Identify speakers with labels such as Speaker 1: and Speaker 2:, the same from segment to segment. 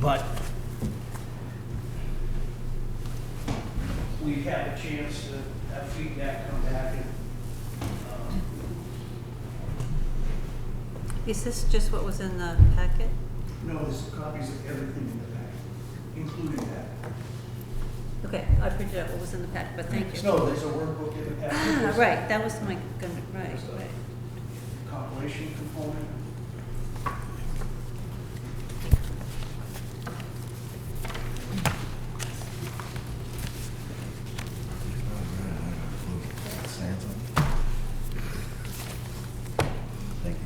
Speaker 1: But we have a chance to have feedback come back and, um,
Speaker 2: Is this just what was in the packet?
Speaker 1: no, there's copies of everything in the packet, including that.
Speaker 2: Okay, I printed out what was in the packet, but thank you.
Speaker 1: No, there's a workbook in the packet.
Speaker 2: Ah,
Speaker 1: there's a
Speaker 2: right, that was my, con- right, right.
Speaker 1: Compilation component.
Speaker 3: Thank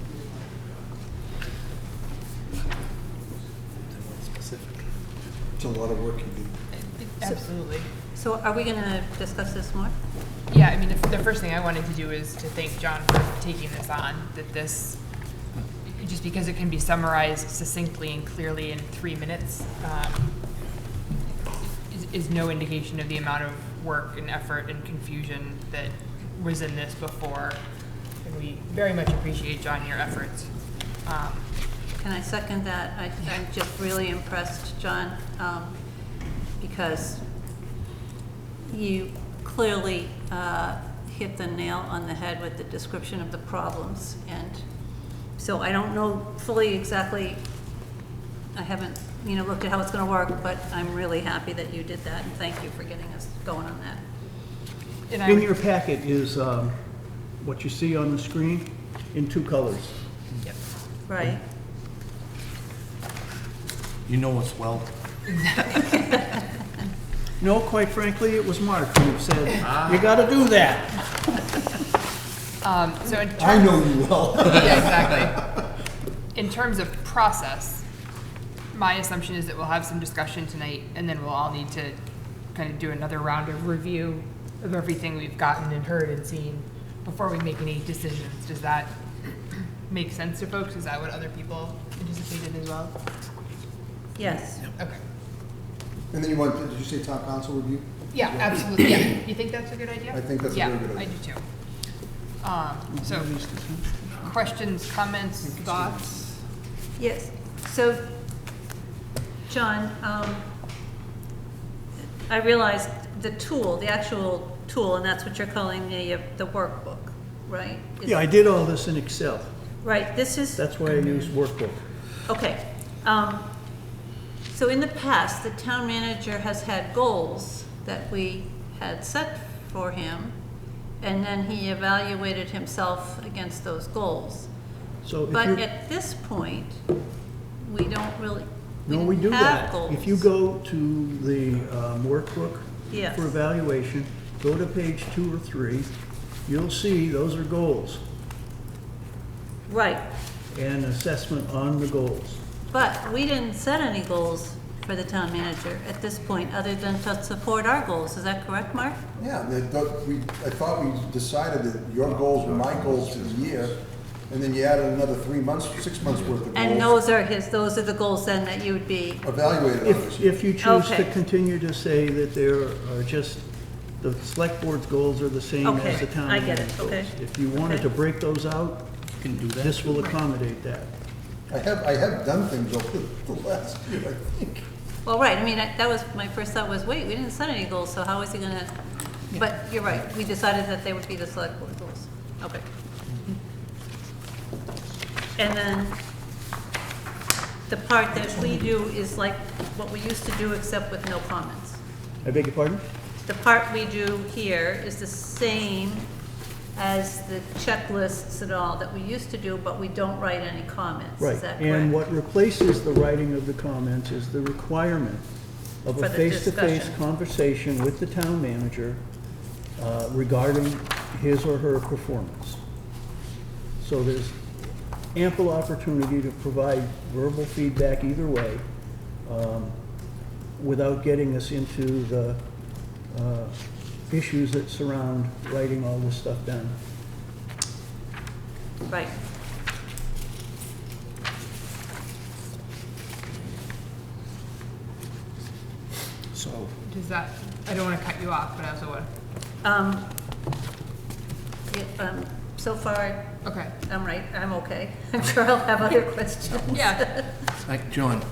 Speaker 4: It's a lot of work you do.
Speaker 5: Absolutely.
Speaker 2: So are we gonna discuss this more?
Speaker 5: Yeah, I mean, if- the first thing I wanted to do is to thank John for taking this on, that this, just because it can be summarized succinctly and clearly in three minutes, um, is- is no indication of the amount of work and effort and confusion that was in this before. And we very much appreciate, John, your efforts. Um,
Speaker 2: Can I second that? I, I'm just really impressed, John, um, because you clearly, uh, hit the nail on the head with the description of the problems. And so I don't know fully exactly, I haven't, you know, looked at how it's gonna work, but I'm really happy that you did that, and thank you for getting us going on that.
Speaker 5: And I
Speaker 1: In
Speaker 5: would-
Speaker 1: your packet is um, what you see on the screen in two colors.
Speaker 5: Yep.
Speaker 2: Right.
Speaker 3: You know what's well,
Speaker 1: No, quite frankly, it was Mark who said, you gotta do that.
Speaker 5: Um, So in
Speaker 4: I know you well.
Speaker 5: Yeah, exactly. In terms of process, my assumption is that we'll have some discussion tonight, and then we'll all need to kind of do another round of review of everything we've gotten and heard and seen before we make any decisions. Does that make sense to folks? Is that what other people anticipated as well?
Speaker 2: Yes.
Speaker 5: Okay.
Speaker 4: And then you want, did you say town council review?
Speaker 5: Yeah, absolutely, yeah. You think that's a good idea?
Speaker 4: I think that's a very good
Speaker 5: Yeah, I
Speaker 4: idea.
Speaker 5: do too. Um, So, questions, comments, thoughts?
Speaker 2: Yes, so, John, um, I realized the tool, the actual tool, and that's what you're calling the, uh, the workbook, right? Is-
Speaker 1: Yeah, I did all this in Excel.
Speaker 2: Right, this is,
Speaker 1: That's why I use workbook.
Speaker 2: okay. Um, So in the past, the town manager has had goals that we had set for him, and then he evaluated himself against those goals.
Speaker 1: So if
Speaker 2: But
Speaker 1: you,
Speaker 2: at this point, we don't really, we
Speaker 1: no, we do
Speaker 2: don't have
Speaker 1: that.
Speaker 2: goals.
Speaker 1: If you go to the um, workbook
Speaker 2: Yes.
Speaker 1: for evaluation, go to page two or three, you'll see those are goals
Speaker 2: Right,
Speaker 1: and assessment on the goals.
Speaker 2: but we didn't set any goals for the town manager at this point, other than to support our goals, is that correct, Mark?
Speaker 4: Yeah, the- the- we, I thought we decided that your goals were my goals for the year, and then you added another three months, six months worth of
Speaker 2: And
Speaker 4: goals.
Speaker 2: those are his, those are the goals then that you would be,
Speaker 4: Evaluated on
Speaker 1: If,
Speaker 4: this.
Speaker 1: if you choose to
Speaker 2: Okay.
Speaker 1: continue to say that there are just, the select board's goals are the same as
Speaker 2: Okay,
Speaker 1: the town
Speaker 2: I get it,
Speaker 1: manager's goals.
Speaker 2: okay,
Speaker 1: If you wanted
Speaker 2: okay.
Speaker 1: to break those out,
Speaker 3: you can do that.
Speaker 1: this will accommodate that.
Speaker 4: I have, I have done things over the last year, I think.
Speaker 2: well, right, I mean, I- that was, my first thought was, wait, we didn't set any goals, so how is he gonna? But you're right, we decided that they would be the select board goals, okay. And then the part that we do is like what we used to do, except with no comments.
Speaker 1: I beg your pardon?
Speaker 2: The part we do here is the same as the checklists and all that we used to do, but we don't write any comments. Is
Speaker 1: Right.
Speaker 2: that
Speaker 1: And
Speaker 2: correct?
Speaker 1: what replaces the writing of the comments is the requirement of
Speaker 2: For
Speaker 1: a
Speaker 2: the
Speaker 1: face-to-face
Speaker 2: discussion.
Speaker 1: conversation with the town manager uh, regarding his or her performance. So there's ample opportunity to provide verbal feedback either way um, without getting us into the uh, issues that surround writing all this stuff down.
Speaker 2: Right.
Speaker 3: So,
Speaker 5: Does that, I don't want to cut you off, but I also want,
Speaker 2: Um, yeah, um, So far,
Speaker 5: okay.
Speaker 2: I'm right, I'm okay. I'm sure I'll have other questions.
Speaker 5: Yeah,
Speaker 3: like, John,